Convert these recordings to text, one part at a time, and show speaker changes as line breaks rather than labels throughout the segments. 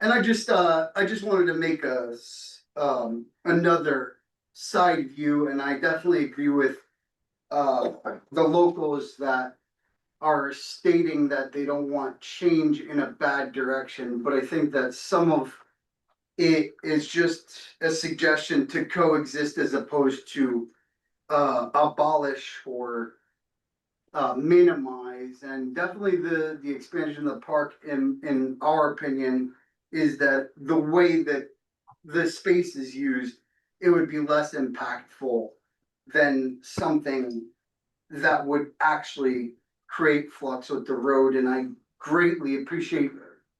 And I just, uh, I just wanted to make a, s- um, another side view, and I definitely agree with. Uh, the locals that are stating that they don't want change in a bad direction, but I think that some of. It is just a suggestion to coexist as opposed to, uh, abolish or. Uh, minimize, and definitely the, the expansion of the park, in, in our opinion, is that the way that the space is used, it would be less impactful than something that would actually create flux with the road, and I greatly appreciate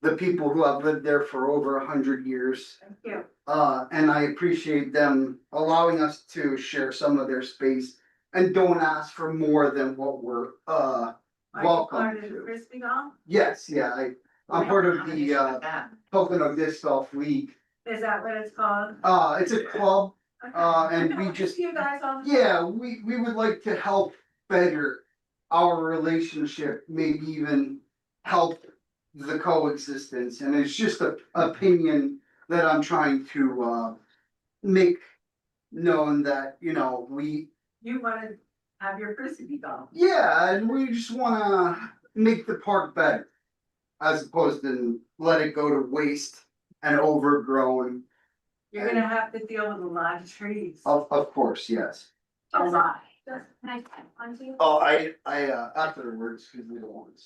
the people who have lived there for over a hundred years.
you.
Uh, and I appreciate them allowing us to share some of their space and don't ask for more than what we're, uh,
Are you
Welcome
part of the
to.
Frisbee Golf?
yes, yeah, I, I'm part of the, uh, Pocono Disc Golf League.
Is that what it's called?
Uh, it's a club
Okay.
Uh, and
I
we
know,
just-
You guys all.
Yeah, we, we would like to help better our relationship, maybe even help the coexistence, and it's just a opinion that I'm trying to, uh, make known that, you know, we,
You wanna have your Frisbee Golf.
yeah, and we just wanna make the park better. As opposed to let it go to waste and overgrown,
You're gonna have to deal with a lot of trees.
of, of course, yes.
A lot.
Just, can I type onto you?
Oh, I, I, uh, afterwards, cause we don't want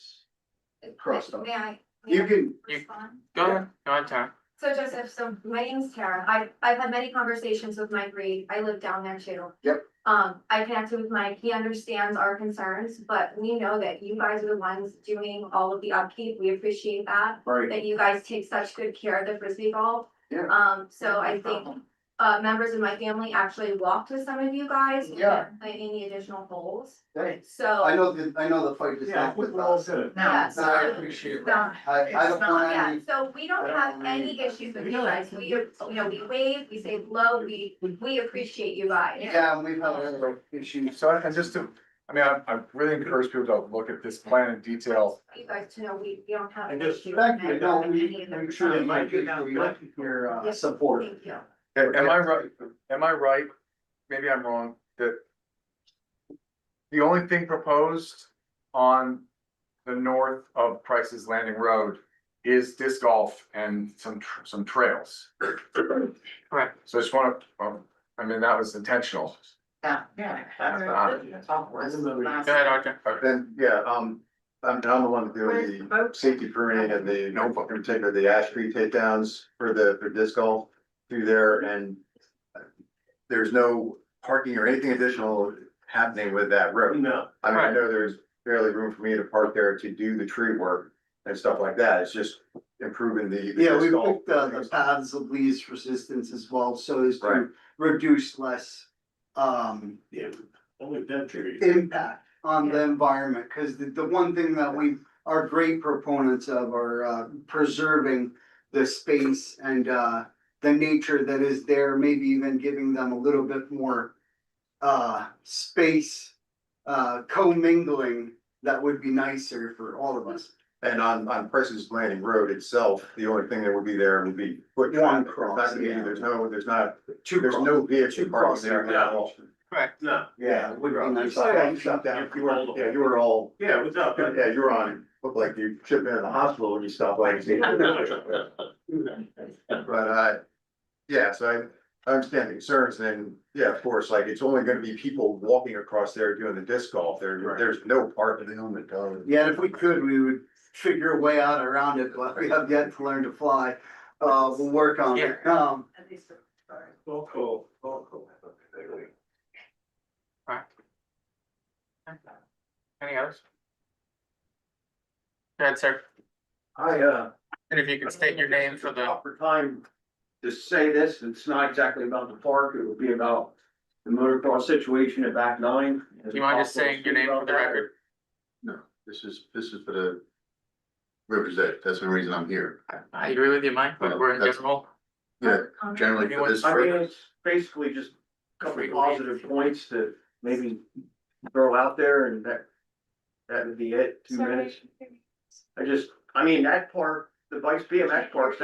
to crossed off.
May I? may
You
I
can,
you-
respond?
Go ahead, go ahead, Tara.
So Joseph, so my name's Tara. I, I've had many conversations with Mike Reed. I live down there too.
Yep.
Um, I connected with Mike. He understands our concerns, but we know that you guys are the ones doing all of the upkeep. We appreciate that,
right.
that you guys take such good care of the frisbee golf.
Yeah.
Um, so I think, uh, members of my family actually walked with some of you guys. and
Yeah.
Any additional holes,
Hey,
so.
I know the, I know the fight is not with us.
Yeah,
And I appreciate that. I, I don't
It's not,
want
Yeah,
any,
so we
Um,
don't
I don't
have
want
any
any-
issues with
We
you
don't
guys,
have
we,
to-
you know, we wave, we say hello, we, we appreciate you guys.
yeah, we've had other issues.
So, and just to, I mean, I, I really encourage people to look at this plan in detail.
You guys to know, we, we don't have.
I
an
just-
issue with
Thank you,
that.
no, we,
Any of them.
I'm sure that might be your, your uh, support.
Thank you.
A- Am I right, am I right, maybe I'm wrong, that the only thing proposed on the north of Price's Landing Road is disc golf and some, tr- some trails.
Correct.
So I just wanna, um, I mean, that was intentional.
Yeah, yeah.
That's not-
Go ahead, Arthur.
Then, yeah, um, I'm, I'm the one to
Where's the
do the
boat?
safety permitting and the,
No boat.
in particular, the ash tree takedowns for the, for disc golf through there and there's no parking or anything additional happening with that road.
No,
I mean, I
Right.
know there's barely room for me to park there to do the tree work and stuff like that. It's just improving the. the
Yeah, we
disc golf.
picked uh, the, the paths of least resistance as well, so as
Right.
to reduce less, um,
yeah, only dead trees.
impact on the
Yeah.
environment, because the, the one thing that we are great proponents of are uh, preserving the space and uh, the nature that is there, maybe even giving them a little bit more uh, space, uh, commingling that would be nicer for all of us.
And on, on Price's Landing Road itself, the only thing that would be there would be. foot
One
traffic. There's
cross,
not gonna be-
yeah.
There's no, there's not,
Two
there's
cross-
no
two
vehicle
cross
parking there
there.
at all.
Correct.
No,
Yeah, it would be nice.
Stop down, stop down. You were, yeah, you were all,
yeah, what's up?
yeah, you were on, looked like you should have been in the hospital when you stopped like. But, uh, yeah, so I, I understand the concerns and, yeah, of course, like, it's only gonna be people walking across there doing the disc golf. There,
Right.
there's no parking. They own the dog.
Yeah, and if we could, we would figure a way out around it, but we have yet to learn to fly. Uh, we'll work on it. Um,
At least for-
Well, cool, well, cool.
Any others? Go ahead, sir.
I, uh.
And if you could state your name for the,
Proper time to say this, it's not exactly about the park, it would be about the motocross situation at back nine.
do you mind just saying your name for the record?
This is, this is for the Rivers Edge. That's the reason I'm here.
I agree with you, Mike, but we're in general.
Yeah, generally
for this
I mean, it's basically just a couple of positive points to maybe throw out there and that. That would be it, two minutes. I just, I mean, that park, the Vice BMX park sounds